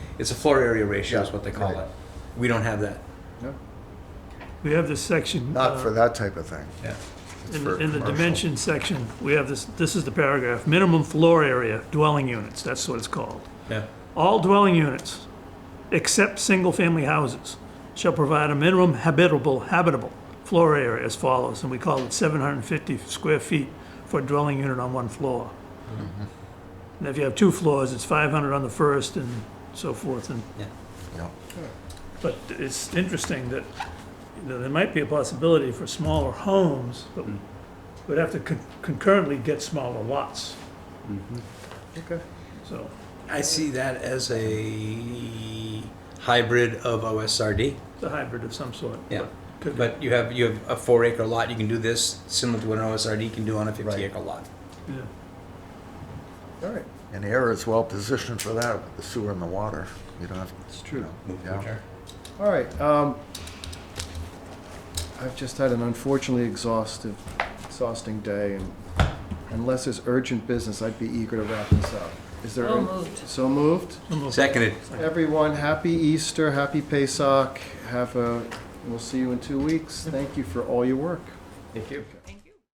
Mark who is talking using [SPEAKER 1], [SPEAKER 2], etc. [SPEAKER 1] It's a floor area ratio is
[SPEAKER 2] Yeah,
[SPEAKER 1] what they call
[SPEAKER 2] right.
[SPEAKER 1] it. We don't have that.
[SPEAKER 2] No,
[SPEAKER 3] We have this section.
[SPEAKER 2] Not
[SPEAKER 3] uh,
[SPEAKER 2] for that type of thing.
[SPEAKER 1] Yeah.
[SPEAKER 2] It's
[SPEAKER 3] In,
[SPEAKER 2] for
[SPEAKER 3] in the
[SPEAKER 2] commercial.
[SPEAKER 3] dimension section, we have this, this is the paragraph, minimum floor area, dwelling units, that's what it's called.
[SPEAKER 1] Yeah.
[SPEAKER 3] All dwelling units, except single-family houses, shall provide a minimum habitable, habitable floor area as follows, and we call it seven hundred and fifty square feet for a dwelling unit on one floor.
[SPEAKER 2] Mm-hmm.
[SPEAKER 3] And if you have two floors, it's five hundred on the first and so forth, and
[SPEAKER 2] Yeah.
[SPEAKER 3] but it's interesting that, you know, there might be a possibility for smaller homes, but
[SPEAKER 1] Hmm.
[SPEAKER 3] we'd have to con- concurrently get smaller lots,
[SPEAKER 2] Okay.
[SPEAKER 3] so.
[SPEAKER 1] I see that as a hybrid of OSRD.
[SPEAKER 3] It's a hybrid of some sort.
[SPEAKER 1] Yeah.
[SPEAKER 3] Could be,
[SPEAKER 1] But you have, you have a four acre lot, you can do this similar to what an OSRD can do on a fifty acre lot.
[SPEAKER 3] yeah.
[SPEAKER 2] All right. And the air is well positioned for that, with the sewer and the water. You don't have.
[SPEAKER 4] It's true.
[SPEAKER 1] Move to
[SPEAKER 2] Yeah.
[SPEAKER 1] adjourn.
[SPEAKER 4] All right. Um, I've just had an unfortunately exhaustive, exhausting day, and unless there's urgent business, I'd be eager to wrap this up. Is there?
[SPEAKER 5] So
[SPEAKER 4] an-
[SPEAKER 5] moved.
[SPEAKER 4] So moved.
[SPEAKER 1] Seconded.
[SPEAKER 4] Everyone, happy Easter, happy Pesach. Have a. We'll see you in two weeks. Thank you for all your work.
[SPEAKER 1] Thank you.
[SPEAKER 5] Thank you.